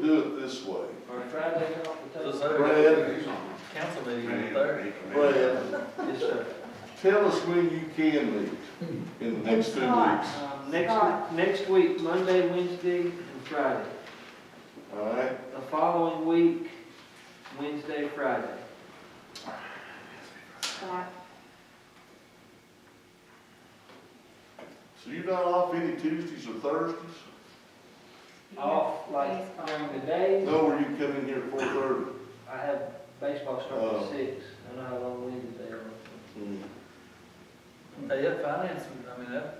do it this way. Or try to take it off the So, table. so, council meeting on the third. Brad, Yes, sir. tell us when you can meet in the next two weeks. It's All Um, next, Scott. next week, Monday, Wednesday, and Friday. right? The following week, Wednesday, Friday. Scott, So you're not off any Tuesdays or Thursdays? you Off, have like baseball. during the day, No, or you come in here at four thirty? I have baseball starting Oh. at six. I know how long Wednesday is. Mm-hmm. Hey, yeah, finance, I mean, that,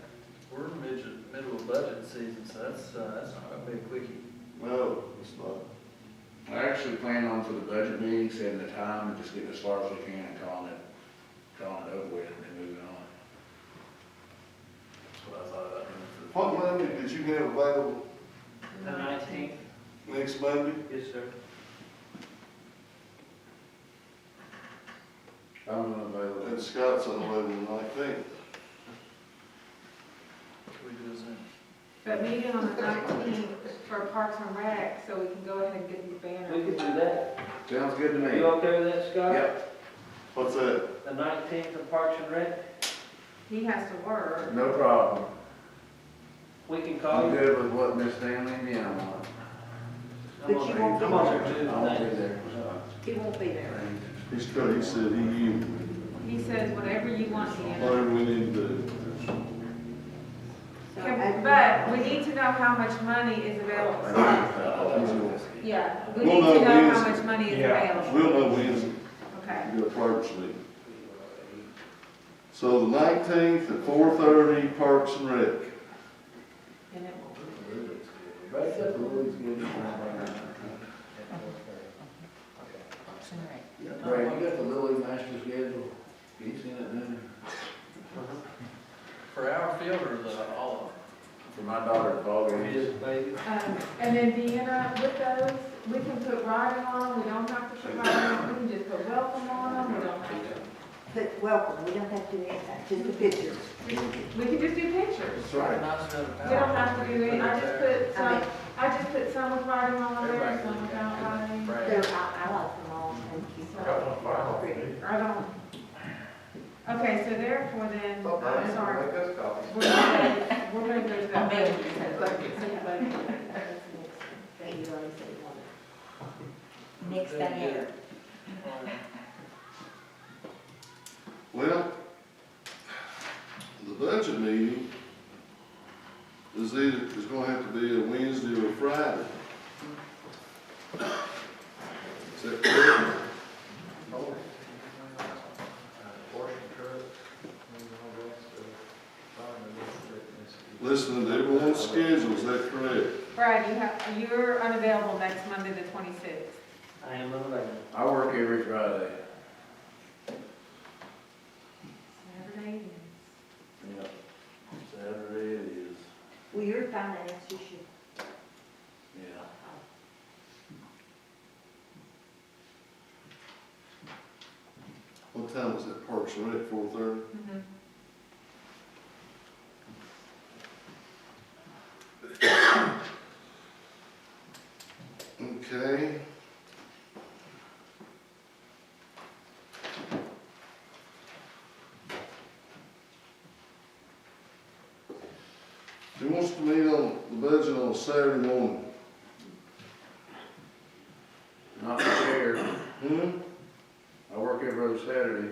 we're in mid, middle of budget season, so that's, uh, that's not gonna be a quickie. No, it's not. I actually plan on for the budget meeting, setting the time and just getting as far as we can and calling it, calling it over with and moving on. That's what I thought about doing for the. What Monday did you have available Mm-hmm. The nineteenth, next Monday? yes, sir. I'm available. And Scott's on the level nineteenth. Can we do a Zoom? But meeting on the nineteenth for Parks and Rec, so we can go ahead and get the We banner. could do that. Sounds good to me. You okay with that, Scott? Yep, What's that? The nineteenth of Parks and Rec, He has to work. no problem. we can call I'm you. good with what Miss Stanley and Deanna want. I'm But on you there- won't be I'm on there. there too, I won't thanks. be there. He won't be there. He's crazy, he said he, you, He says whatever you want, Deanna. whatever we need to do. Can- But we need to know how much money is available. Scott. Yeah, we We'll need know to know how Wednesday. much money is Yeah. available. We'll know Wednesday. Okay. Your clerk's meeting. So the nineteenth at four thirty, Parks and Rec. And it will be- That's a really good. Brad, you got the Lily Master schedule? You seen it, didn't you? For our field or the, all For my daughter's ball It game. is, baby. Um, And then Deanna, with those, we can put riding on, we don't have to put riding on, we can just put welcome on them, we don't have to. But welcome, we don't have to do that, just the pictures. We can just do pictures. That's of right. them? Nice to have a We don't have to do power. any, I just put I some, mean- I just put some with riding on there, Everybody some can look without at it. riding. Brad. So I, I like them all, thank you. Pretty. Right on. Okay, so therefore then, I'm sorry, us coffee. we're gonna, we're gonna go to that budget. Thank you, already said one. Next banner. Well, the budget meeting is either, is gonna have to be a Wednesday or a Friday. Is that correct? Listening to everyone's schedule, is that correct? Brad, you have, you're unavailable next Monday, the twenty-sixth. I am available. I work every Friday. Saturday, Yep. Saturday it is, Well, you're finance, you should. yeah. What time was that Parks and Rec, four thirty? Mhm. Okay. He wants to meet on the budget on Saturday morning. Not prepared. Hmm? I work every other Saturday.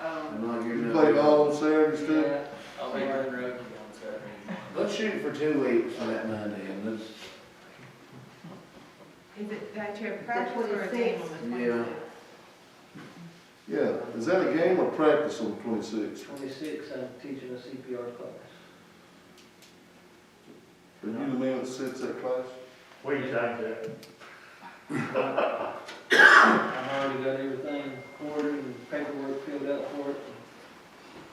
Um, I'm not You giving up. play ball on Saturdays too? Yeah, I'll be running road on Saturday. Let's shoot for two weeks on that Monday and let's, is it that you have practice or a game on the 26th. Yeah. twenty-sixth? Yeah, is that a game or practice on twenty-sixth? Twenty-six, I'm teaching a CPR class. Are you the man that sits that class? What do you think, Jack? I've already got everything ordered and paperwork filled out for it.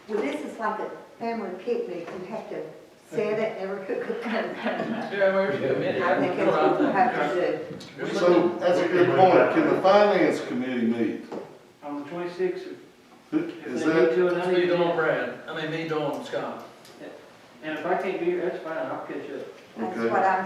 Well, this is like a family picnic, you have to set it, never cook it. I Yeah, we're committed. think that's what you have to do. So, that's a good point, can the finance committee meet? On the twenty-sixth, Who- if Is they need that, to, and I That's me need doing to. Brad, I mean, me doing Scott. And if I can't be here, that's fine, I'll catch up. That's Okay. what I'm